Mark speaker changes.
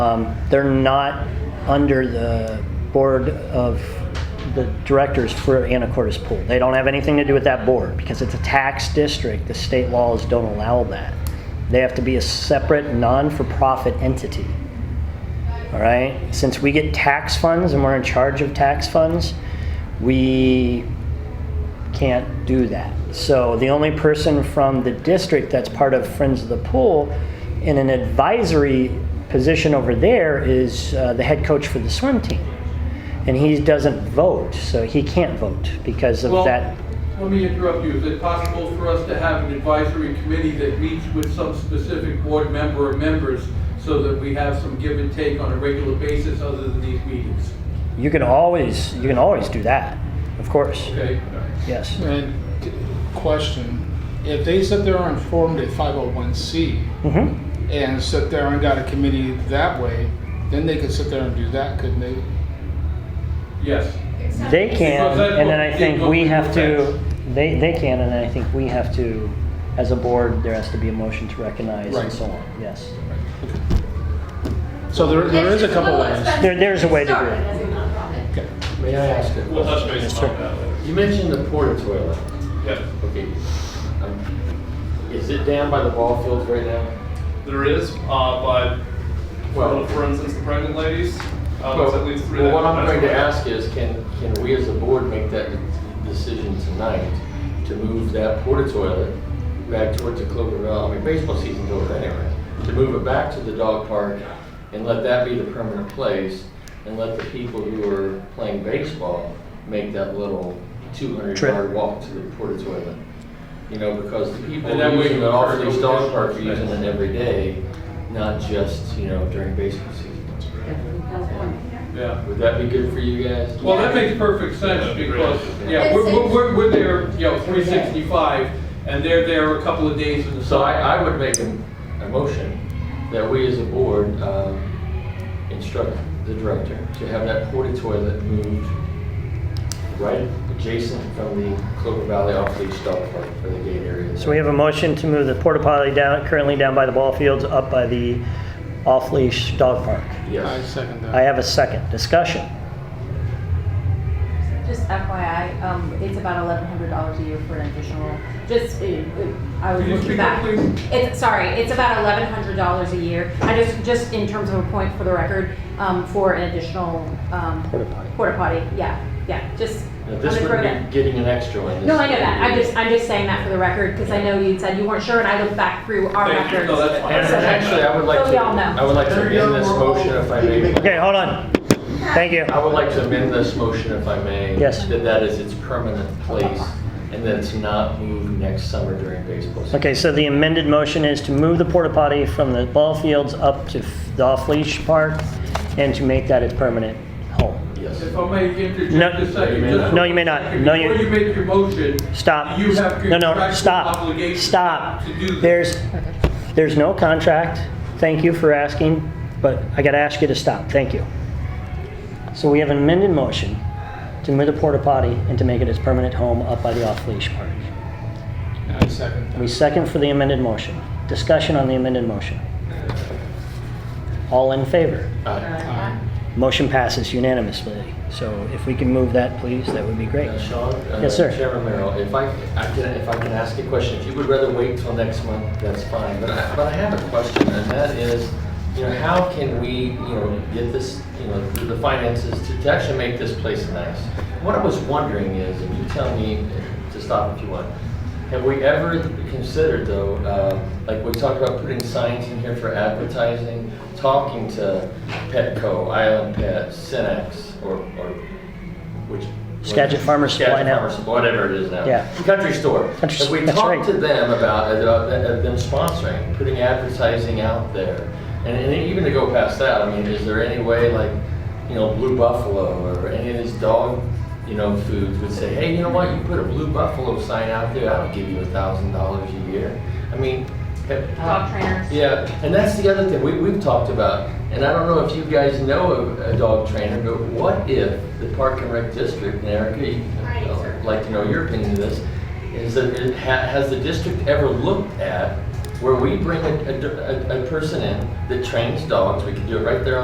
Speaker 1: Um, They're not under the board of the directors for Anacortes Pool. They don't have anything to do with that board because it's a tax district. The state laws don't allow that. They have to be a separate, non-for-profit entity. All right? Since we get tax funds and we're in charge of tax funds, we can't do that. So the only person from the district that's part of Friends of the Pool in an advisory position over there is uh, the head coach for the swim team. And he doesn't vote, so he can't vote because of
Speaker 2: Well,
Speaker 1: that.
Speaker 2: Let me interrupt you. Is it possible for us to have an advisory committee that meets with some specific board member or members so that we have some give and take on a regular basis other than these meetings?
Speaker 1: You can always, you can always do that, of course.
Speaker 2: Okay?
Speaker 1: Yes.
Speaker 3: And c- question, if they sit there and formed a 501c
Speaker 1: hmm
Speaker 3: and sit there and got a committee that way, then they could sit there and do that, couldn't they?
Speaker 2: Yes.
Speaker 1: They can,
Speaker 2: Because that's
Speaker 1: and then
Speaker 2: what-
Speaker 1: I think
Speaker 2: what
Speaker 1: we
Speaker 2: we
Speaker 1: have to,
Speaker 2: defend.
Speaker 1: they, they can, and then I think we have to, as a board, there has to be a motion to recognize and
Speaker 3: Right.
Speaker 1: so on, yes.
Speaker 3: So there, there is a couple ways.
Speaker 1: There- there's a way to do it.
Speaker 4: it.
Speaker 3: Okay.
Speaker 5: May I ask a
Speaker 6: We'll touch
Speaker 5: question?
Speaker 6: base
Speaker 1: sir.
Speaker 6: on that later.
Speaker 5: You mentioned the porta toilet.
Speaker 6: Yeah,
Speaker 5: Okay. Um, Is it down by the ball fields right now?
Speaker 6: there is, uh, but,
Speaker 5: Well-
Speaker 6: well, for instance, the pregnant ladies,
Speaker 2: Um,
Speaker 6: uh,
Speaker 5: Well,
Speaker 6: that's at least three.
Speaker 5: well,
Speaker 6: that-
Speaker 5: what I'm
Speaker 6: that's
Speaker 5: going to
Speaker 6: where-
Speaker 5: ask is, can, can we as a board make that decision tonight to move that porta toilet back towards the Cloverdale, I mean, baseball season's over anyway, to move it back to the dog park and let that be the permanent place and let the people who are playing baseball make that little 200
Speaker 1: Trip.
Speaker 5: yard walk to the porta toilet? You know, because the people
Speaker 2: And that way
Speaker 5: using
Speaker 2: you
Speaker 5: the
Speaker 2: encourage
Speaker 5: off-leash dog
Speaker 2: competition.
Speaker 5: park are using it every day, not just, you know, during baseball season.
Speaker 2: Yeah.
Speaker 5: Would that be good for you guys?
Speaker 2: Well, that makes perfect sense because, yeah, we're, we're- we're, we're there, you know, 365 and they're there a couple of days in the
Speaker 5: So I,
Speaker 2: summer.
Speaker 5: I would make a, a motion that we as a board, um, instruct the director to have that porta toilet moved right adjacent from the Clover Valley off-leash dog park for the gate area.
Speaker 1: So we have a motion to move the porta potty down, currently down by the ball fields, up by the off-leash dog park.
Speaker 3: I
Speaker 5: Yes.
Speaker 3: second
Speaker 1: I
Speaker 3: that.
Speaker 1: have a second, discussion.
Speaker 4: Just FYI, um, it's about eleven hundred dollars a year for an additional, just, uh, uh, I was
Speaker 2: Can you
Speaker 4: looking
Speaker 2: speak up,
Speaker 4: back.
Speaker 2: please?
Speaker 4: It's, sorry, it's about eleven hundred dollars a year. I just, just in terms of a point for the record, um, for an additional, um.
Speaker 1: Porta potty.
Speaker 4: Porta potty, yeah, yeah, just.
Speaker 5: Now,
Speaker 4: I'm
Speaker 5: this
Speaker 4: gonna throw that-
Speaker 5: would be getting an extra one.
Speaker 4: No, I know that. I'm just, I'm just saying that for the record, because I know you said you weren't sure, and I looked back through our
Speaker 2: Thank you.
Speaker 4: records.
Speaker 2: No, that's fine.
Speaker 5: And actually, I would like
Speaker 4: So we
Speaker 5: to,
Speaker 4: all know.
Speaker 5: I would like to amend this motion if I may.
Speaker 1: Okay, hold on. Thank you.
Speaker 5: I would like to amend this motion if I may.
Speaker 1: Yes.
Speaker 5: That that is its permanent place and that it's not moved next summer during baseball season.
Speaker 1: Okay, so the amended motion is to move the porta potty from the ball fields up to f- the off-leash park and to make that its permanent home.
Speaker 5: Yes.
Speaker 2: If I may
Speaker 1: No.
Speaker 2: interject a second. just for
Speaker 5: No, you may not.
Speaker 1: No,
Speaker 2: a
Speaker 1: you may not.
Speaker 2: second,
Speaker 1: No, you-
Speaker 2: Before you make your motion.
Speaker 1: Stop.
Speaker 2: You have
Speaker 1: No, no,
Speaker 2: contractual
Speaker 1: stop.
Speaker 2: obligations
Speaker 1: Stop.
Speaker 2: to do this.
Speaker 1: There's, there's no contract. Thank you for asking, but I gotta ask you to stop. Thank you. So we have an amended motion to move the porta potty and to make it its permanent home up by the off-leash park.
Speaker 3: I second
Speaker 1: We
Speaker 3: that.
Speaker 1: second for the amended motion. Discussion on the amended motion. All in favor?
Speaker 5: Uh,
Speaker 3: Aye.
Speaker 1: Motion passes unanimously. So if we can move that, please, that would be great.
Speaker 5: uh, Sean? uh,
Speaker 1: Yes, sir.
Speaker 5: Chairman Merrill, if I, I can, if I can ask a question, if you would rather wait till next month, that's fine. But I, but I have a question and that is, you know, how can we, you know, get this, you know, through the finances to, to actually make this place nice? What I was wondering is, and you tell me to stop if you want, Have we ever considered though, uh, like we talked about putting signs in here for advertising, talking to Petco, Island Pet, Cinex, or, or which?
Speaker 1: Skagit Farmers Supply
Speaker 5: Skagit
Speaker 1: now.
Speaker 5: Farmers, whatever it is now.
Speaker 1: Yeah.
Speaker 5: Country store.
Speaker 1: Country-
Speaker 5: Have we
Speaker 1: that's right.
Speaker 5: talked to them about, uh, about th- of them sponsoring, putting advertising out there? And, and even to go past that, I mean, is there any way like, you know, Blue Buffalo or any of these dog, you know, foods would say, hey, you know what, you put a Blue Buffalo sign out there, I'll give you a thousand dollars a year. I mean, have-
Speaker 4: Dog trainers.
Speaker 5: yeah, and that's the other thing we, we've talked about, and I don't know if you guys know a, a dog trainer, but what if the Park and Rec District, and Erica, you-
Speaker 4: Right, sir.
Speaker 5: I'd like to know your opinion of this, is that, it ha- has the district ever looked at where we bring a, a- a, a person in that trains dogs, we can do it right there on.